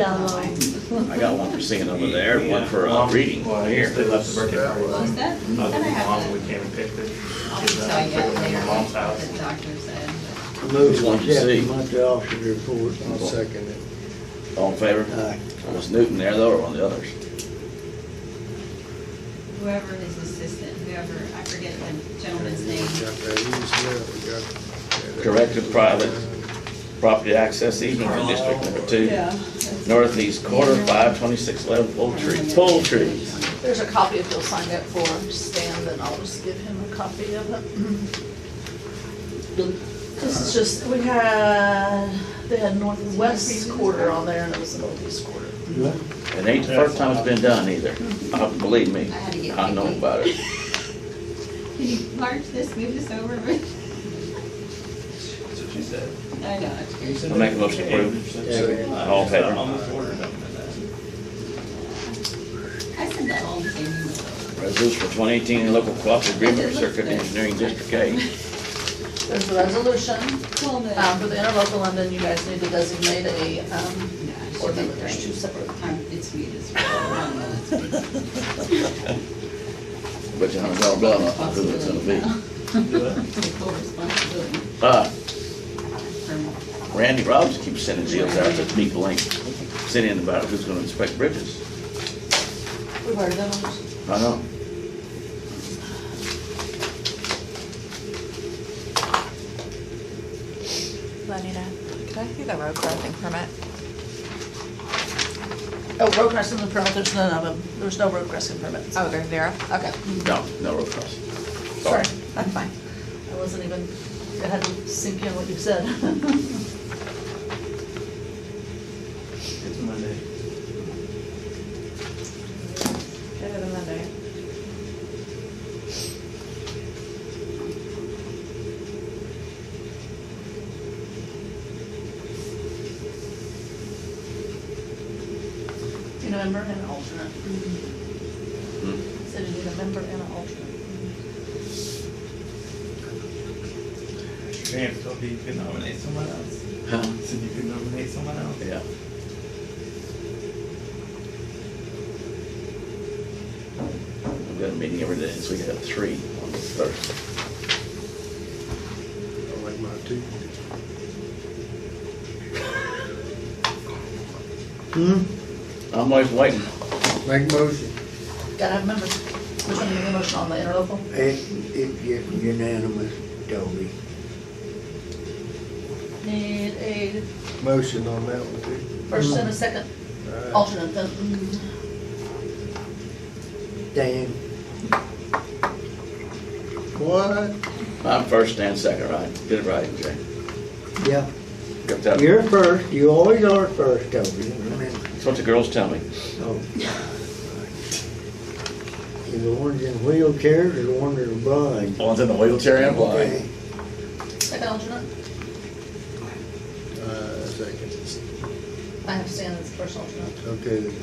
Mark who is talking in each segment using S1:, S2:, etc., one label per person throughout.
S1: um,
S2: I got one for singing over there, and one for uh,
S3: Mom-
S2: reading.
S3: Well, here, they left the birthday party.
S4: Well, is that,
S3: Mom,
S4: that I have
S3: we
S4: to,
S3: came and picked it.
S4: I'll
S3: Picked it
S4: tell
S3: up,
S4: you
S3: took it from
S4: later
S3: my mom's
S4: what
S3: house.
S4: the doctor said. but-
S2: Which one you see?
S5: Monthly officer report, I'll second it.
S2: All in favor?
S5: Aye.
S2: It was Newton there though, or one of the others?
S4: Whoever his assistant, whoever, I forget the gentleman's name.
S5: Got that easy up, we got-
S2: Corrective private property access easement for District Number Two, northeast quarter, five twenty-six eleven Poultry, Poultry.
S1: There's a copy if you'll sign up for Stan, then I'll just give him a copy of it. This is just, we had, they had northwest quarter on there and it was the northeast quarter.
S2: It ain't the first time it's been done either. Uh, Believe me,
S4: I had to get
S2: I know
S4: picky.
S2: about it.
S4: Can you large this, move this over? I
S3: That's what she said.
S4: know. it's-
S2: I make a motion to approve.
S5: Second.
S2: All in favor?
S3: Almost ordered them and that.
S4: I sent that all the same email.
S2: Resolution for twenty eighteen local cooperative agreement for Circuit Engineering District Eight.
S1: There's a resolution,
S4: Well, the.
S1: um, for the interlocal London, you guys need to designate a, um,
S4: Yeah, I should
S1: or
S4: be
S1: no, there's two
S4: great.
S1: separate.
S4: Um, It's me, it's. I know it's me.
S2: But you know, blah, blah, blah, who it's gonna be.
S4: It's full responsibility
S2: Uh,
S4: for
S2: Randy Robbins keeps sending deals out to people ain't sitting about who's gonna inspect bridges.
S1: We've already done those.
S2: I know.
S6: Lenina, could I see the road crossing permit?
S1: Oh, road crossing the permit, there's none of them. There's no road crossing permits.
S6: Oh, there's zero? Okay.
S2: No, no road crossing.
S1: Sorry, I'm fine. I wasn't even, I had to sink in what you said.
S3: It's Monday.
S6: Better than Monday.
S1: You know, member and an alternate.
S2: Hmm.
S1: Said you need a member and an alternate.
S3: Damn, Toby, you could nominate someone else.
S2: Huh?
S3: Said you could nominate someone else.
S2: Yeah. I've got a meeting every day, so we got three on the Thursday.
S5: I like my two.
S7: Hmm?
S2: I'm always waiting.
S5: Make motion.
S1: Gotta have members. Which one do you need a motion on, the interlocal?
S7: It, it gets unanimous, Toby.
S1: Need a
S5: Motion on that one too.
S1: first and a second
S5: Aye.
S1: alternate then. Mm.
S7: Dan,
S5: What?
S2: I'm first and second, right? Get it right, Jay.
S7: yeah,
S2: Got that?
S7: you're first, you always are first, Toby, remember?
S2: That's what the girls tell me.
S7: Oh. You the ones in wheelchairs or the ones that are blind?
S2: One's in the wheelchair and
S7: Okay.
S1: Second alternate?
S5: Uh, second.
S1: I have Stan as first alternate.
S5: Okay, then.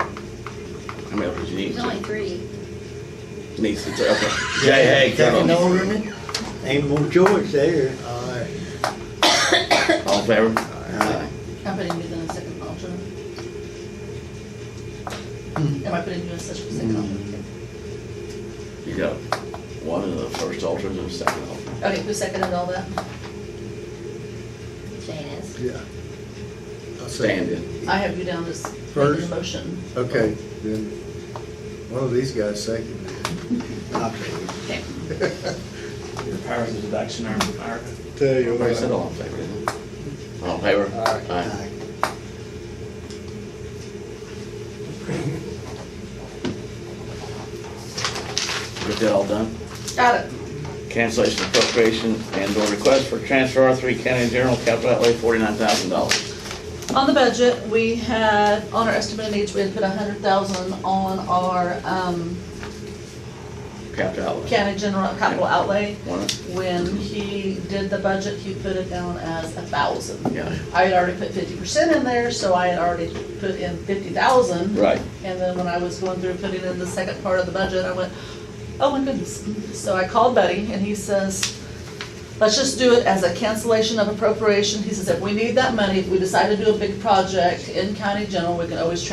S2: How many others you need?
S4: There's only three.
S2: Needs to tell. Jay, hey,
S7: Second
S2: come on.
S7: alternate, ain't no choice there.
S5: aye.
S2: All in favor?
S7: Aye.
S1: I'm putting you then as second alternate. Am I putting you as such a second alternate?
S2: You got one of the first alternate and the second alternate.
S1: Okay, who seconded all that?
S4: Janice.
S5: Yeah. I
S2: Stand
S5: second it.
S2: in.
S1: I have you down as making a
S5: First.
S1: motion.
S5: Okay, then, one of these guys second it.
S7: Okay.
S1: Okay.
S3: Your powers of deduction are in America.
S5: Tell you
S2: Everybody said all in favor, didn't they? All in favor? Aye.
S7: Aye.
S2: Get that all done?
S1: Got it.
S2: Cancellation appropriation and or request for transfer R three county general capital outlay forty-nine thousand dollars.
S1: On the budget, we had, on our estimated needs, we had put a hundred thousand on our, um,
S2: Capital outlay.
S1: county general capital outlay.
S2: One,
S1: When he did the budget, he put it down as a thousand.
S2: yeah,
S1: I had already put fifty percent in there, so I had already put in fifty thousand.
S2: right.
S1: And then when I was going through putting in the second part of the budget, I went, oh my goodness. So I called Buddy and he says, Let's just do it as a cancellation of appropriation. He says if we need that money, if we decide to do a big project in county general, we can always transfer